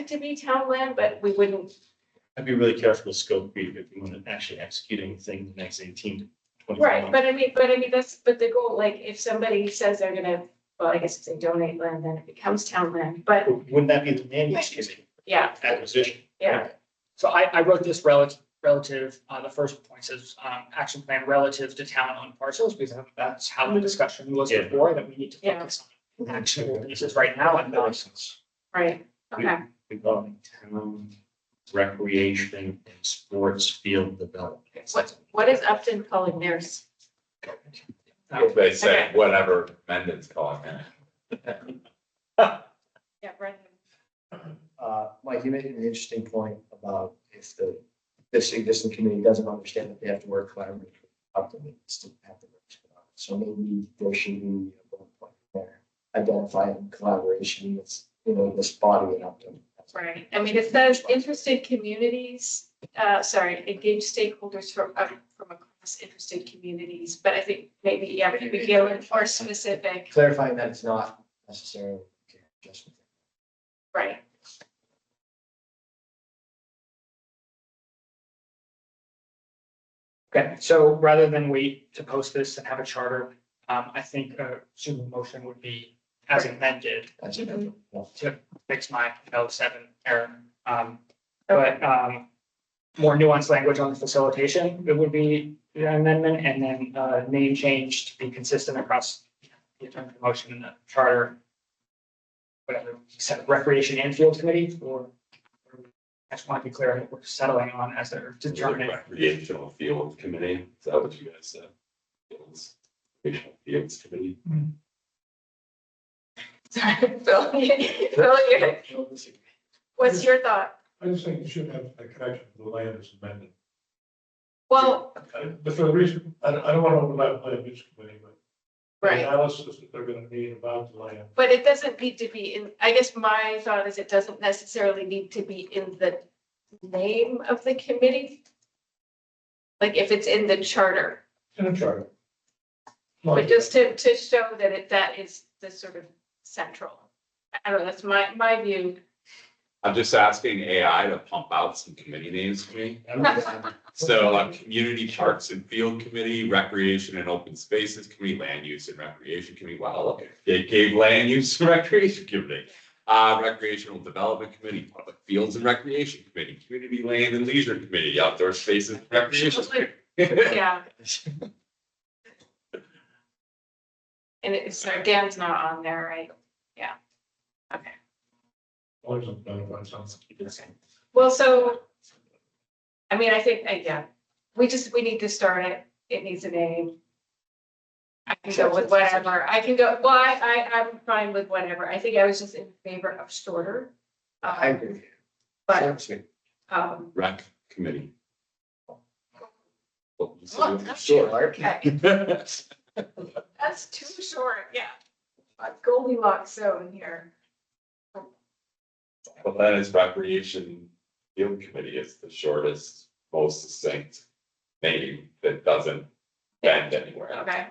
it to be town land, but we wouldn't, I'd be really careful with scope creep if you want to actually execute anything in the next eighteen to twenty-four right, months. but I mean, but I mean, that's, but the goal, like, if somebody says they're gonna, well, I guess if they donate land, then it becomes town land, but Wouldn't that be the land use committee yeah, acquisition? yeah, So I, I wrote this relative, relative, uh, the first point says, um, action plan relative to town owned parcels, because that's how the discussion was Yeah. before, that we need to Yeah. focus on actual uses right now and not. right, okay, Regarding town recreation and sports field development. what, what is Upton calling theirs? They say whatever Mendon's calling it. Yeah, right. Uh, Mike, you made an interesting point about if the, this existing community doesn't understand that they have to work collaboratively. up to it, it's still have to work together. So maybe there should be a bullet point there, identifying collaboration with, you know, this body and up to. Right, I mean, it says interested communities, uh, sorry, engage stakeholders from, uh, from across interested communities, but I think maybe, yeah, we could go in more specific, Clarifying that it's not necessarily just. right? Okay, so rather than wait to post this and have a charter, um, I think a suitable motion would be as amended that's- Mhm. to fix my L seven error. Um, but, um, more nuanced language on the facilitation, it would be an amendment and then, uh, name change to be consistent across the term of the motion and the charter. Whatever, set recreation and field committee or or I just want to be clear, on what we're settling on as they're determining. Recreational field committee, is that what you guys said? Fields, recreational fields committee. Sorry, Phil, Phil, you're- what's your thought? I just think you should have a connection to the land as amended. Well, Uh, But for the reason, I don't, I don't want to overlap land use committee, but. the right, Analysis that they're gonna need about the land. but it doesn't need to be in, I guess my thought is it doesn't necessarily need to be in the name of the committee. Like if it's in the charter, In a charter. but just to, to show that it, that is the sort of central. I don't know, that's my, my view. I'm just asking AI to pump out some committee names for me. So like community parks and field committee, recreation and open spaces committee, land use and recreation committee. Wow, look, they gave land use and recreation committee. Uh, recreational development committee, public fields and recreation committee, community land and leisure committee, outdoor spaces, and recreation. committee. Yeah. And it's, so Dan's not on there, right? Always identify something. Well, so, I mean, I think, uh, yeah, we just, we need to start it, it needs a name. I can go with whatever, I can go, well, I, I, I'm fine with whatever, I think I was just in favor of shorter. um, I agree. with you. But, Seriously. um, Rec committee. Well, that's Sure, Art. okay, that's too short, yeah. Uh, Goldilocks zone here, Well, that is recreation field committee is the shortest, most succinct name that doesn't bend anywhere. okay.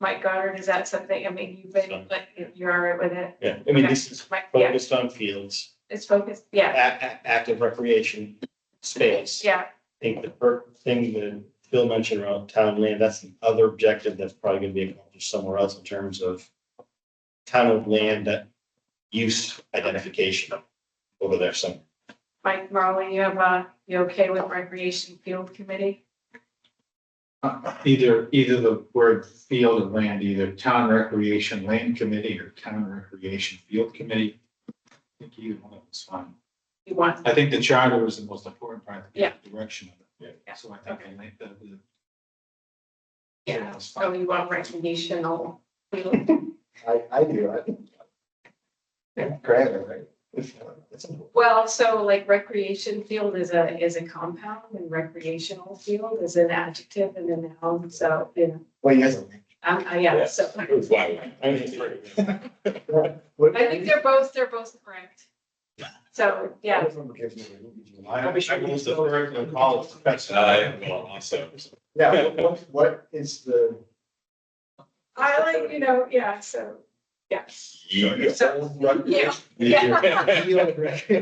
Mike Goddard, is that something, I mean, you've been, like, you're all right with it? Yeah, I mean, this is Mike, yeah, focused on fields, it's focused, a- yeah, a- active recreation space. yeah, I think the first thing that Phil mentioned around town land, that's the other objective that's probably gonna be accomplished somewhere else in terms of town of land that use identification over there some. Mike Marley, you have, uh, you okay with recreation field committee? Either, either the word field and land, either town recreation land committee or town recreation field committee. I think either one of them's fine. you want, I think the charter is the most important part, Yeah. the direction of it. Yeah. So I think I like the, the. yeah, That's so fine. you want recreational. I, I do, I think. Yeah, Great, right? That's important. Well, so like recreation field is a, is a compound and recreational field is an adjective and a noun, so, you know, Well, yes. um, uh, yeah, so. That's why I I think they're both, they're both correct. So, yeah, I wish I was the first to call it professional. Uh, well, also. Yeah, what- what, what is the? I like, you know, yeah, so, yeah. Yeah. So, yeah. Field recreation